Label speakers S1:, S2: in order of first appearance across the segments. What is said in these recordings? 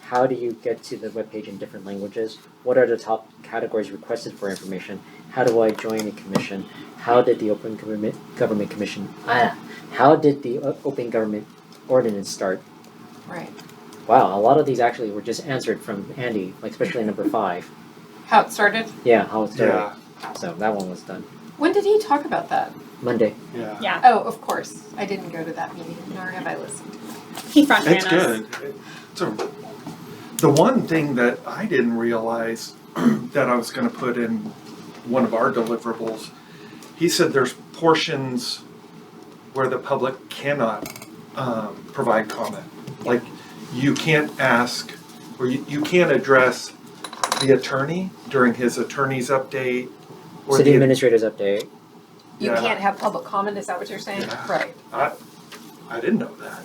S1: How do you get to the webpage in different languages? What are the top categories requested for information? How do I join a commission? How did the Open Government Government Commission? Ah, how did the O- Open Government Ordinance start?
S2: Right.
S1: Wow, a lot of these actually were just answered from Andy, like especially number five.
S2: How it started?
S1: Yeah, how it started.
S3: Yeah,
S1: So that one was done
S2: When did he talk about that?
S1: Monday.
S3: yeah.
S4: Yeah,
S2: Oh, of course. I didn't go to that meeting, nor have I listened.
S4: he front ran
S3: It's
S4: us.
S3: good. It's a, the one thing that I didn't realize that I was going to put in one of our deliverables, he said there's portions where the public cannot um, provide comment. Like you can't ask or you, you can't address the attorney during his attorney's update or
S1: City
S3: the
S1: administrators update.
S2: You
S3: Yeah.
S2: can't have public comment, is that what you're saying?
S3: Yeah.
S2: Right.
S3: I didn't know that.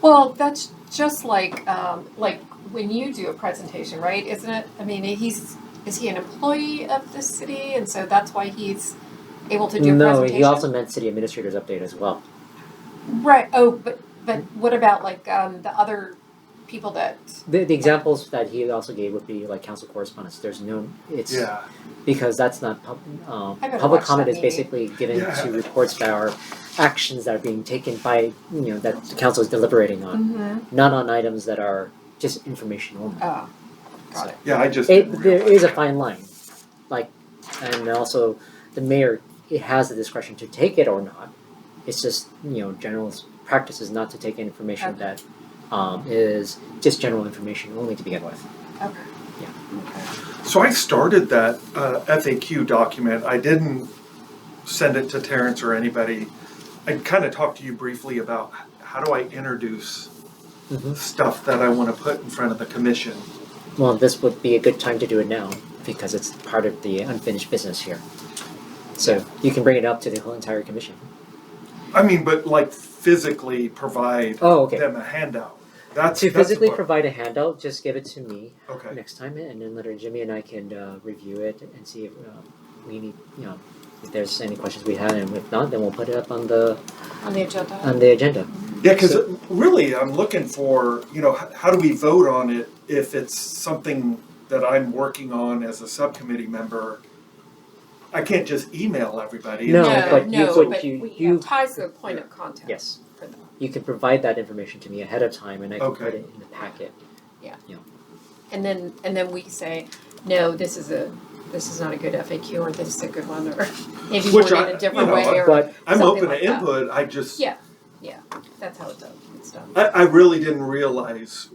S2: Well, that's just like, um, like when you do a presentation, right? Isn't it? I mean, he's, is he an employee of the city? And so that's why he's able to do a
S1: no,
S2: presentation?
S1: he also meant city administrators update as well.
S2: Right, oh, but, but what about like, um, the other people that,
S1: The, the examples that he also gave would be like council correspondence. There's no, it's
S3: Yeah.
S1: because that's not pub, um,
S2: I better
S1: public
S2: watch
S1: comment
S2: that
S1: is
S2: meeting.
S1: basically given
S3: Yeah.
S1: to reports that are actions that are being taken by you know that the council is deliberating on,
S2: Mm-hmm.
S1: not on items that are just information only.
S2: oh, got it.
S3: Yeah, I just
S1: It,
S3: didn't
S1: there
S3: realize
S1: is a
S3: that.
S1: fine line, like, and also the mayor it has the discretion to take it or not. It's just you know general s- practice is not to take information
S2: Okay.
S1: that um, is just general information only to begin with.
S2: Okay.
S1: Yeah.
S3: So I started that uh, FAQ document. I didn't send it to Terrence or anybody. I kind of talked to you briefly about h- how do I introduce
S1: Mhm.
S3: stuff that I want to put in front of the commission.
S1: Well, this would be a good time to do it now because it's part of the unfinished business here. So you can bring it up to the whole entire commission.
S3: I mean, but like physically provide
S1: Oh, okay.
S3: them a handout. That's
S1: To
S3: that's
S1: physically
S3: what-
S1: provide a handout, just give it to me
S3: Okay.
S1: next time, and then later Jimmy and I can uh, review it and see if um, we need, you know, if there's any questions we have, and if not, then we'll put it up on the
S2: On the agenda.
S1: on the agenda.
S3: Yeah, because
S1: So-
S3: really, I'm looking for you know h- how do we vote on it if it's something that I'm working on as a subcommittee member. I can't just email everybody. and
S1: No,
S3: say,
S2: No,
S1: but you
S2: no,
S1: would-
S2: but
S1: you-
S2: we
S1: you-
S2: have ties to the point of contact.
S1: Yes,
S2: For them.
S1: you can provide that information to me ahead of time, and I can put
S3: Okay.
S1: it in the packet.
S2: And then, and then we say, no, this is a, this is not a good FAQ, or this is a good one, or maybe
S3: Which
S2: one
S3: I-
S2: in a
S3: you
S2: different
S3: know,
S2: way,
S3: I-
S2: or
S1: But
S3: I'm
S2: something
S3: open
S2: like
S3: to
S2: that.
S3: input. I just
S2: Yeah. that's how it does, it's done.
S3: I, I really didn't realize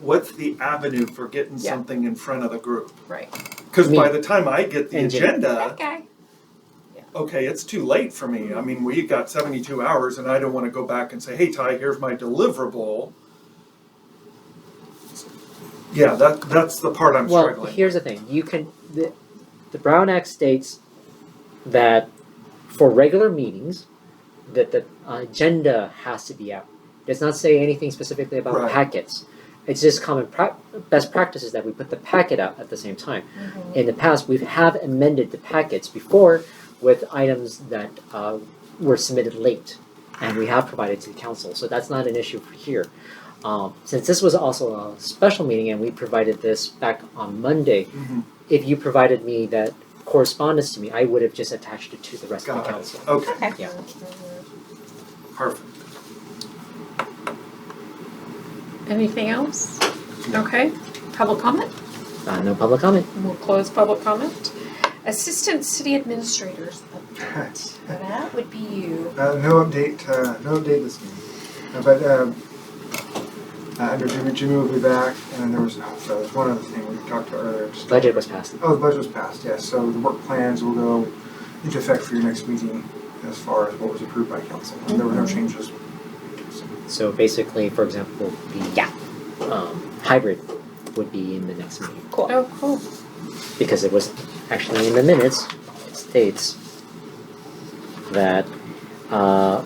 S3: what's the avenue for getting
S2: Yeah.
S3: something in front of the group.
S2: Right.
S3: Because
S1: Me.
S3: by the time I get the
S1: And Jimmy.
S3: agenda,
S2: Okay.
S3: okay, it's too late for me. I mean, we got 72 hours, and I don't want to go back and say, "Hey, Ty, here's my deliverable." Yeah, that that's the part I'm
S1: well,
S3: struggling.
S1: here's the thing: you can the, the Brown Act states that for regular meetings, that the agenda has to be out. It does not say anything specifically about
S3: Right.
S1: packets. It's just common pra- best practices that we put the packet out at the same time. In the past, we have amended the packets before with items that uh, were submitted late, and we have provided to the council. So that's not an issue for here. Um, since this was also a special meeting and we provided this back on Monday,
S3: Mhm.
S1: if you provided me that correspondence to me, I would have just attached it to the rest of
S3: Got
S1: the
S3: it.
S1: council.
S3: Okay,
S4: Okay.
S1: Yeah.
S3: perfect.
S2: Anything else? Okay, public comment?
S1: Uh, no public comment.
S2: We'll close public comment. Assistant City Administrators update. Now That would be you.
S5: Uh, no update, uh, no update this meeting. Uh, but um, uh, under Jimmy, Jimmy will be back, and then there was, oh, there was one other thing we talked about earlier. just-
S1: Budget was passed.
S5: Oh, the budget was passed, yes. So the work plans will go into effect for your next meeting as far as what was approved by council. And there were no changes. So,
S1: So basically, for example, the um, hybrid would be in the next meeting
S4: Cool.
S2: Oh, cool.
S1: because it was actually in the minutes. It states that uh,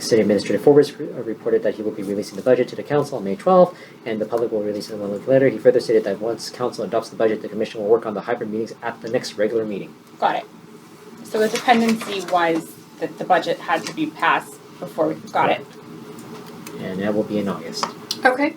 S1: City Administrative Forbes re- uh, reported that he will be releasing the budget to the council on May 12th, and the public will release it one week later. He further stated that once council adopts the budget, the commission will work on the hybrid meetings at the next regular meeting.
S4: Got it. So the dependency was that the budget had to be passed before we got it.
S1: And that will be in August.
S2: Okay,